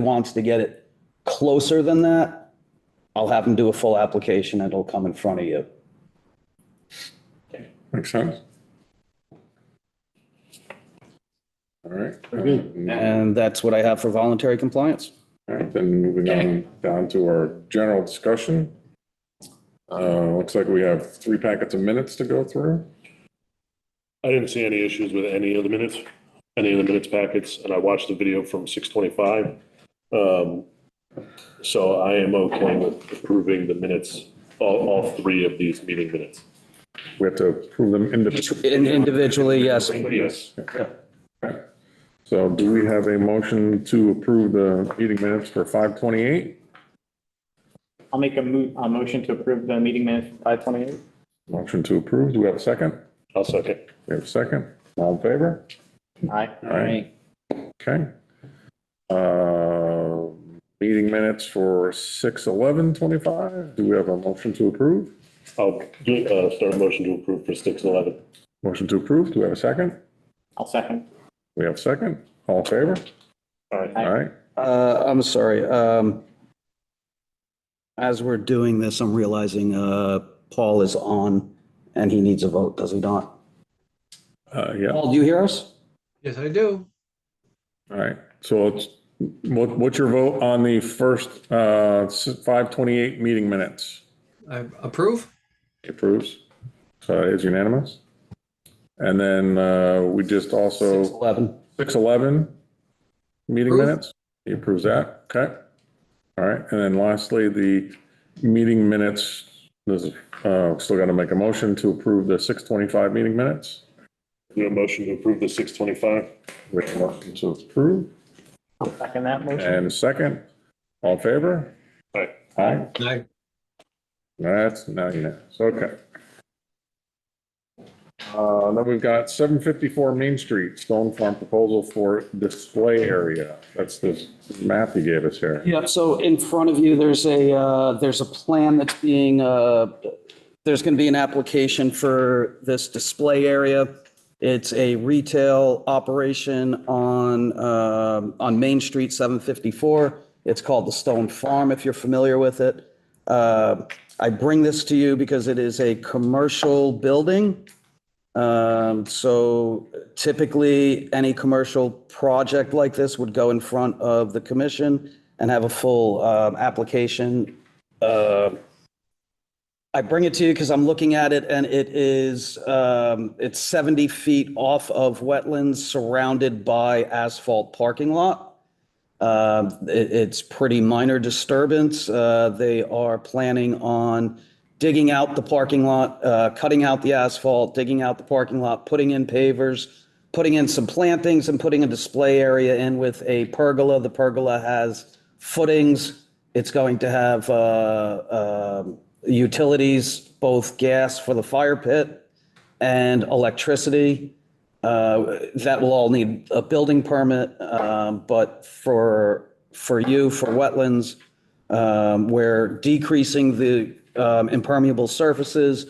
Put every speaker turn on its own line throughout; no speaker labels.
wants to get it closer than that, I'll have him do a full application and it'll come in front of you.
Makes sense. All right. Um,
And that's what I have for voluntary compliance.
All right, then moving on down to our general discussion. Uh, looks like we have three packets of minutes to go through.
I didn't see any issues with any of the minutes, any of the minutes packets, and I watched the video from six twenty-five. Um, so I am okay with approving the minutes, all, all three of these meeting minutes.
We have to approve them individually.
In- Individually, yes.
Yes,
So do we have a motion to approve the meeting minutes for five twenty-eight?
I'll make a mo- a motion to approve the meeting minutes five twenty-eight.
Motion to approve. Do we have a second?
I'll second.
We have a second. All in favor?
Aye.
All right. Okay. Uh, meeting minutes for six eleven twenty-five. Do we have a motion to approve?
I'll do, uh, start a motion to approve for six eleven.
Motion to approve. Do we have a second?
I'll second.
We have a second. All in favor?
All right,
Aye.
All right.
Uh, I'm sorry. um, As we're doing this, I'm realizing uh, Paul is on and he needs a vote, does he not?
Uh, yeah. All
Paul, do you hear us?
Yes, I do.
right. So it's, what, what's your vote on the first, uh, five twenty-eight meeting minutes?
I approve.
Approves. So it is unanimous. And then, uh, we just also.
6:11.
611 meeting
Approve.
minutes. He approves that. Okay. All right. And then lastly, the meeting minutes, this, is, uh, still got to make a motion to approve the 625 meeting minutes.
do a motion to approve the six twenty-five.
Which motion to approve
I'll second that motion.
and second. All in favor?
All right,
Aye.
I
That's now unanimous. Okay. Uh, then we've got 754 Main Street, Stone Farm proposal for display area. That's this map you gave us here.
Yep, so in front of you, there's a, uh, there's a plan that's being, uh, there's going to be an application for this display area. It's a retail operation on, um, on Main Street, 754. It's called the Stone Farm, if you're familiar with it. Uh, I bring this to you because it is a commercial building. Um, So typically, any commercial project like this would go in front of the commission and have a full um, application. Uh, I bring it to you because I'm looking at it and it is, um, it's 70 feet off of wetlands surrounded by asphalt parking lot. Um, it- It's pretty minor disturbance. Uh, They are planning on digging out the parking lot, uh, cutting out the asphalt, digging out the parking lot, putting in pavers, putting in some plantings and putting a display area in with a pergola. The pergola has footings. It's going to have uh, um, utilities, both gas for the fire pit and electricity. Uh, That will all need a building permit, um, but for, for you, for wetlands, um, we're decreasing the um, impermeable surfaces.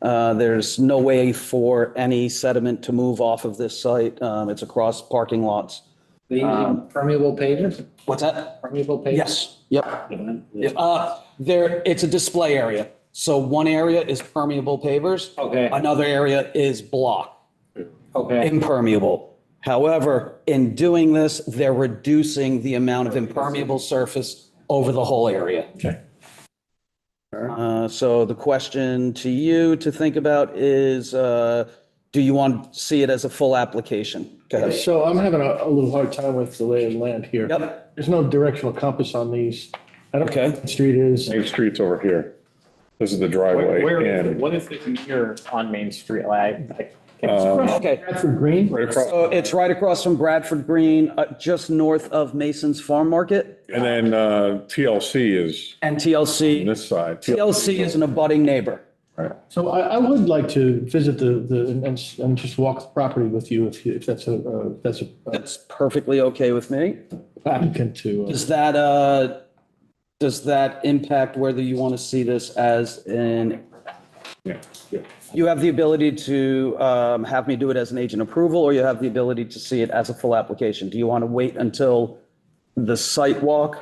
Uh, There's no way for any sediment to move off of this site. Um, It's across parking lots.
They using permeable pavers,
What's that?
permeable pavers?
Yes, yep. Yeah, Uh, there, it's a display area. So one area is permeable pavers.
Okay.
Another area is block,
Okay.
impermeable. However, in doing this, they're reducing the amount of impermeable surface over the whole area.
Okay.
Uh, so the question to you to think about is, uh, do you want to see it as a full application? Go ahead.
So I'm having a, a little hard time with the lay of the land here.
Yep.
There's no directional compass on these. I don't
Okay.
know what the street is.
Main Street's over here. This is the
Where,
driveway
where is it?
and
what is this mirror on Main Street? Like, I- I
Um,
can't-
Okay.
Bradford Green?
right across,
So it's right across from Bradford Green, uh, just north of Mason's Farm Market
and then uh, TLC is
and TLC.
on this side.
TLC is an abutting neighbor.
Right.
So I, I would like to visit the, the, and, and- and just walk the property with you if, you- if that's a, uh, if that's a uh,
That's perfectly okay with me.
applicant to. uh,
Does that, uh, does that impact whether you want to see this as an,
Yeah, yeah.
you have the ability to, um, have me do it as an agent approval or you have the ability to see it as a full application? Do you want to wait until the site walk